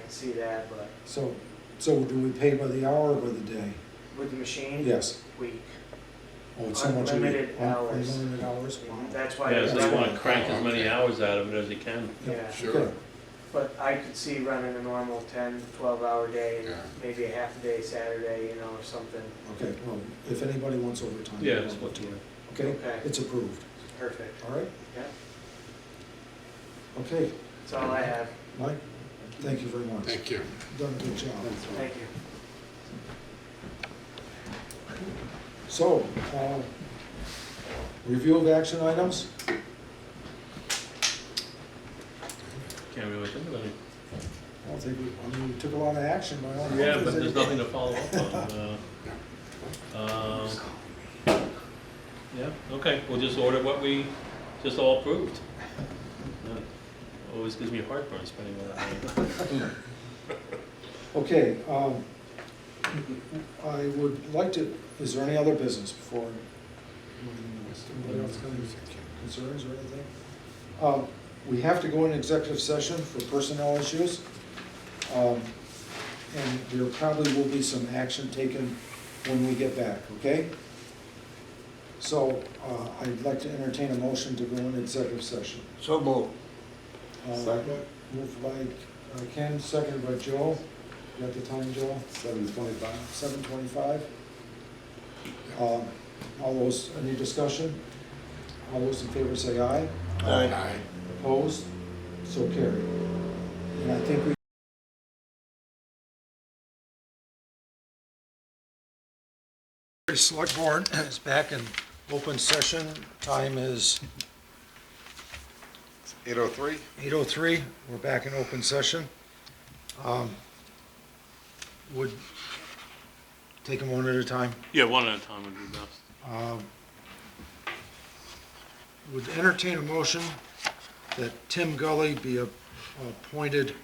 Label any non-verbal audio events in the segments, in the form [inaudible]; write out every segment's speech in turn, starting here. can see that, but So, so do we pay by the hour or by the day? with the machine, Yes. week. Oh, it's so much a week. Hmm. Unlimited Un- hours. Unlimited hours, wow. That's why. Yeah, it's so that's they running- wanna crank as many hours out of it as they can. Yeah. Sure. But I could see running a normal 10, 12 hour day, and Yeah. maybe a half a day Saturday, you know, or something. Okay, well, if anybody wants overtime. Yeah, we'll it's look what- to it. Okay, Okay. it's approved, Perfect. all right? Yeah. Okay, That's all I have. Mike, thank you very much. Thank you. Done a good job. Thank you. So, uh, review of action items? Can't really think of any. I don't think, we- I mean, we took a lot of action, but I don't know. Yeah, if but there's any- nothing to follow up on. uh, um, Yeah, okay, we'll just order what we just all approved. Yeah, Always gives me heartburn spending all that money. Okay, um, I would like to, is there any other business before? Anybody else got any concerns or anything? Um, we have to go in executive session for personnel issues. Um, and there probably will be some action taken when we get back, okay? So, uh, I'd like to entertain a motion to go in executive session. So moved. Uh, Second. Moved by uh, Ken, seconded by Joel. You got the time, Joel? Seven twenty-five. Seven twenty-five. Um, All those, any discussion? All those in favor say aye. Aye. Opposed? So carried. And I think we The Select Board is back in open session. Time is Eight oh three? 8:03, we're back in open session. Um, Would, take them one at a time. Yeah, one at a time would be best. Um, Would entertain a motion that Tim Gully be a- appointed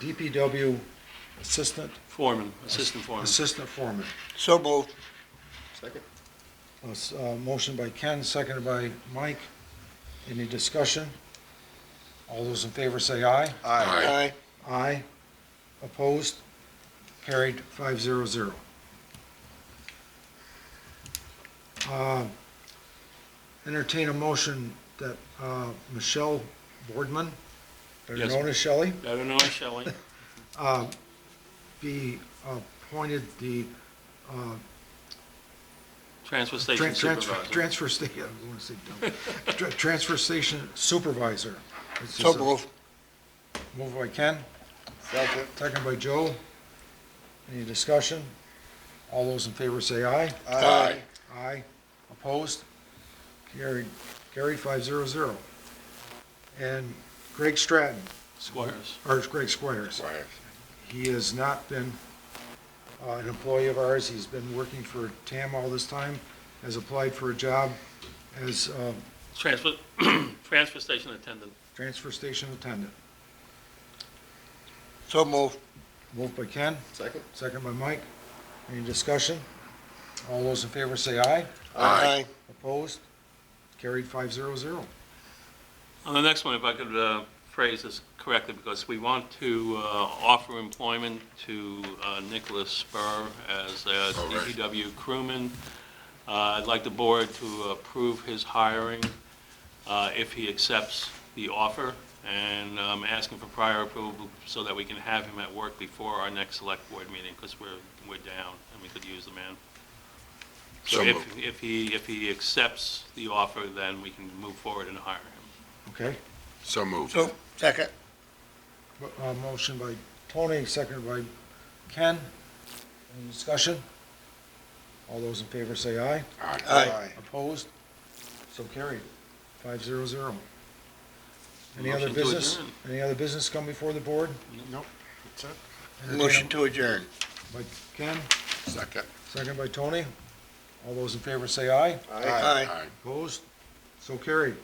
DPW Assistant, Foreman, assistant foreman. Assistant Foreman. So moved. Second. Uh, s- uh, Motion by Ken, seconded by Mike. Any discussion? All those in favor say aye. Aye. Aye. Opposed? Carried, five zero zero. Uh, Entertain a motion that uh, Michelle Boardman, better Yes. known as Shelley, Better known as Shelley. uh, be appointed the uh, Transfer tran- station transfer- supervisor. transfer sta- I wanna say dumb. Tra- transfer station supervisor. It's So just a- moved. Moved by Ken, Second. second by Joe. Any discussion? All those in favor say aye. Aye. Aye. Opposed? Carried, carried five zero zero. And Greg Stratton, Squires. or Greg Squires, Aye. he has not been uh, an employee of ours. He's been working for TAM all this time, has applied for a job as uh, Transfer, [clears throat] transfer station attendant. transfer station attendant. So moved. Moved by Ken, Second? second by Mike. Any discussion? All those in favor say aye. Aye. Opposed? Carried five zero zero. On the next one, if I could uh, phrase this correctly, because we want to uh, offer employment to uh, Nicholas Spur as uh, a All right. DPW crewman. Uh, I'd like the board to approve his hiring uh, if he accepts the offer, and I'm asking for prior approval so that we can have him at work before our next select board meeting, because we're, we're down, and we could use the man. So So if, moved. if he, if he accepts the offer, then we can move forward and hire him. Okay? So moved. So, second. Uh, Motion by Tony, seconded by Ken. Any discussion? All those in favor say aye. Aye. Aye. Opposed? So carried. Five zero zero. Any Motion other to business? adjourn. Any other business come before the board? Nope. That's it. Motion to adjourn. By Ken, Second. seconded by Tony. All those in favor say aye. Aye. Opposed? So carried.